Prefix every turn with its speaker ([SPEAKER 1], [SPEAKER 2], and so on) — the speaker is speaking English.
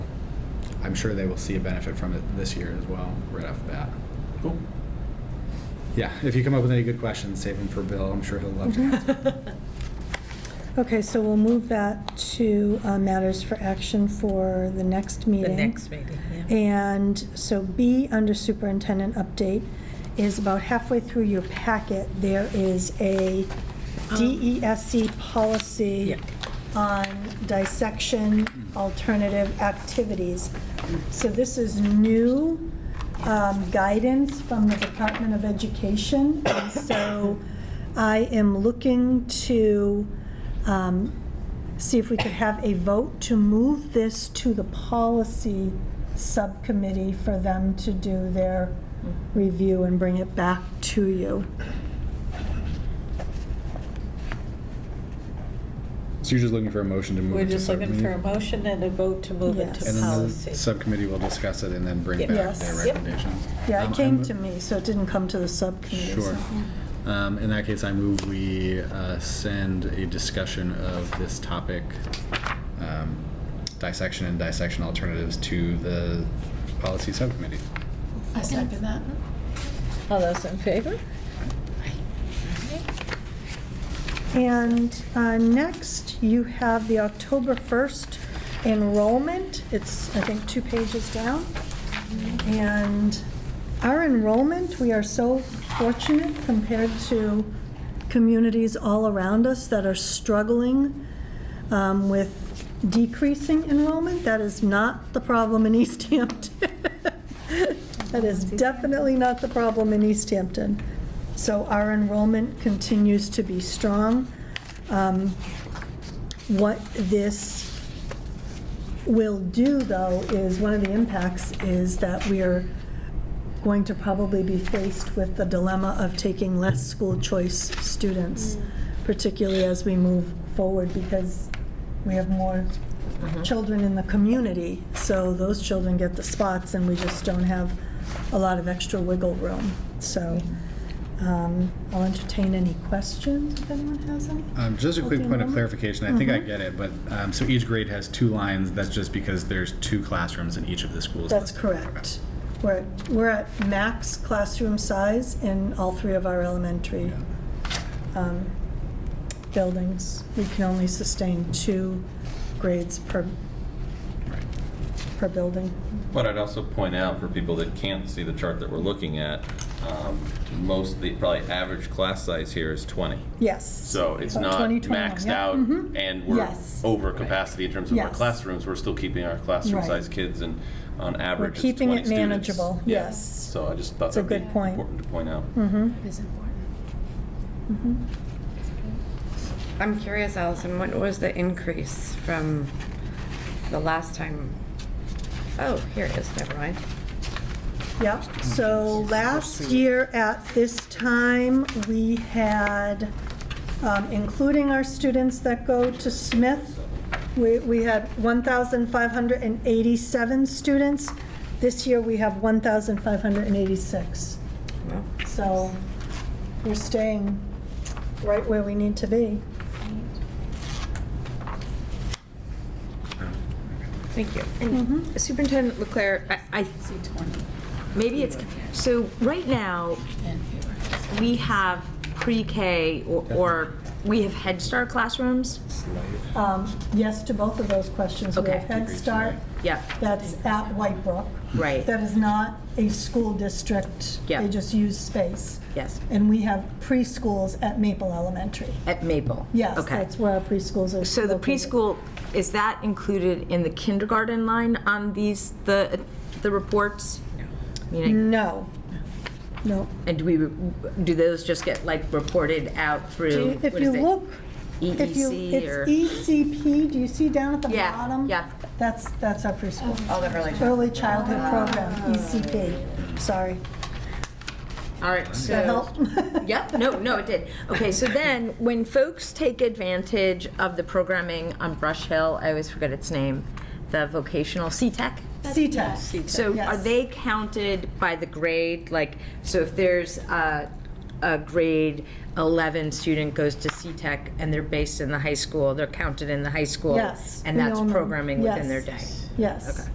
[SPEAKER 1] I'm sure they will see a benefit from it this year as well, right off the bat.
[SPEAKER 2] Cool.
[SPEAKER 1] Yeah, if you come up with any good questions, save them for Bill. I'm sure he'll love to
[SPEAKER 3] Mm-hmm.
[SPEAKER 1] answer.
[SPEAKER 4] Okay, so we'll move that to uh, matters for action for the next
[SPEAKER 3] The
[SPEAKER 4] meeting.
[SPEAKER 3] next meeting, yeah.
[SPEAKER 4] And so B, under superintendent update, is about halfway through your packet, there is a
[SPEAKER 3] Um,
[SPEAKER 4] DESC E policy
[SPEAKER 3] Yeah.
[SPEAKER 4] on dissection alternative activities. So this is new um, guidance from the Department of Education. And so I am looking to um, see if we could have a vote to move this to the policy subcommittee for them to do their review and bring it back to you.
[SPEAKER 1] So you're just looking for a motion to move
[SPEAKER 3] We're
[SPEAKER 1] it to
[SPEAKER 3] just looking for a
[SPEAKER 1] subcommittee?
[SPEAKER 3] motion and a vote to move it
[SPEAKER 4] Yes.
[SPEAKER 3] to
[SPEAKER 1] And then the
[SPEAKER 3] policy.
[SPEAKER 1] subcommittee will discuss it and then bring
[SPEAKER 3] Yep.
[SPEAKER 1] back
[SPEAKER 4] Yes.
[SPEAKER 1] their
[SPEAKER 3] Yep.
[SPEAKER 1] recommendations.
[SPEAKER 4] Yeah,
[SPEAKER 1] Um,
[SPEAKER 4] it came
[SPEAKER 1] I'm-
[SPEAKER 4] to me, so it didn't come to the subcommittee. so-
[SPEAKER 1] Sure. Um, In that case, I move we uh, send a discussion of this topic, um, dissection and dissection alternatives, to the policy subcommittee.
[SPEAKER 5] I second that.
[SPEAKER 3] All those in favor?
[SPEAKER 4] And uh, next, you have the October 1st enrollment. It's, I think, two pages down. And our enrollment, we are so fortunate compared to communities all around us that are struggling um, with decreasing enrollment. That is not the problem in East Hampton. That is definitely not the problem in East Hampton. So our enrollment continues to be strong. Um, What this will do, though, is, one of the impacts is that we are going to probably be faced with the dilemma of taking less school choice students, particularly as we move forward, because we have more children in the community, so those children get the spots, and we just don't have a lot of extra wiggle room. So um, I'll entertain any questions if anyone has any.
[SPEAKER 1] Um, Just a quick
[SPEAKER 4] Okay, Mm-hmm.
[SPEAKER 1] point of
[SPEAKER 4] Norma?
[SPEAKER 1] clarification, I think I get it, but, um, so each grade has two lines, that's just because there's two classrooms in each of the schools.
[SPEAKER 4] That's
[SPEAKER 1] listed.
[SPEAKER 4] correct. We're, at- we're at max classroom size in all three of our elementary um, buildings. We can only sustain two grades per,
[SPEAKER 1] Right.
[SPEAKER 4] per building.
[SPEAKER 6] But I'd also point out for people that can't see the chart that we're looking at, um, most, the probably average class size here is 20.
[SPEAKER 4] Yes.
[SPEAKER 6] So it's
[SPEAKER 4] Oh,
[SPEAKER 6] not
[SPEAKER 4] 20, 21,
[SPEAKER 6] maxed
[SPEAKER 4] yeah,
[SPEAKER 6] out
[SPEAKER 4] mhm.
[SPEAKER 6] and we're
[SPEAKER 4] Yes.
[SPEAKER 6] over capacity in terms of our
[SPEAKER 4] Yes.
[SPEAKER 6] classrooms. We're still keeping our classroom
[SPEAKER 4] Right.
[SPEAKER 6] size kids and on average it's
[SPEAKER 4] keeping
[SPEAKER 6] 20
[SPEAKER 4] it
[SPEAKER 6] students.
[SPEAKER 4] manageable,
[SPEAKER 6] Yeah.
[SPEAKER 4] yes.
[SPEAKER 6] So I just thought
[SPEAKER 4] It's a
[SPEAKER 6] that'd be
[SPEAKER 4] good point.
[SPEAKER 6] important to point out.
[SPEAKER 4] Mhm.
[SPEAKER 5] It is important.
[SPEAKER 4] Mm-hmm.
[SPEAKER 7] I'm curious, Allison, what was the increase from the last time? Oh, here it is, never mind.
[SPEAKER 4] Yep, so last year at this time, we had, um, including our students that go to Smith, we, we had 1,587 students. This year, we have 1,586.
[SPEAKER 7] Well,
[SPEAKER 4] So we're staying right where we need to be.
[SPEAKER 1] Oh,
[SPEAKER 7] Thank you. And Superintendent Leclerc, I- I,
[SPEAKER 8] Maybe it's, so right now, we have pre-K or- or, we have Head Start classrooms?
[SPEAKER 4] Um, Yes to both of those questions. We have
[SPEAKER 8] Okay.
[SPEAKER 4] Head Start,
[SPEAKER 8] Yep,
[SPEAKER 4] that's at White Brook.
[SPEAKER 8] Right.
[SPEAKER 4] That is not a school district.
[SPEAKER 8] Yeah.
[SPEAKER 4] They just use space.
[SPEAKER 8] yes,
[SPEAKER 4] And we have preschools at Maple Elementary.
[SPEAKER 8] at Maple?
[SPEAKER 4] Yes,
[SPEAKER 8] Okay.
[SPEAKER 4] that's where our preschools are.
[SPEAKER 8] So the
[SPEAKER 4] located.
[SPEAKER 8] preschool, is that included in the kindergarten line on these, the, the reports? Meaning,
[SPEAKER 4] No. No.
[SPEAKER 8] and do we, do those just get like reported out through,
[SPEAKER 4] If
[SPEAKER 8] what is
[SPEAKER 4] you
[SPEAKER 8] it?
[SPEAKER 4] look, if you,
[SPEAKER 8] EEC or?
[SPEAKER 4] it's E ECP, do you see down at the
[SPEAKER 8] Yeah,
[SPEAKER 4] bottom?
[SPEAKER 8] yeah. Oh,
[SPEAKER 4] That's, that's our preschool.
[SPEAKER 7] all the early.
[SPEAKER 4] Early childhood program, ECP. Sorry.
[SPEAKER 8] All right,
[SPEAKER 4] Does that
[SPEAKER 8] so.
[SPEAKER 4] help?
[SPEAKER 8] Yep, no, no, it did. Okay, so then, when folks take advantage of the programming on Brush Hill, I always forget its name, the vocational CTEC.
[SPEAKER 4] CTEC.
[SPEAKER 8] So are
[SPEAKER 4] Yes.
[SPEAKER 8] they counted by the grade? Like, so if there's a, a grade 11 student goes to CTEC and they're based in the high school, they're counted in the high school?
[SPEAKER 4] Yes,
[SPEAKER 8] And
[SPEAKER 4] we
[SPEAKER 8] that's
[SPEAKER 4] all know.
[SPEAKER 8] programming within their day?
[SPEAKER 4] Yes.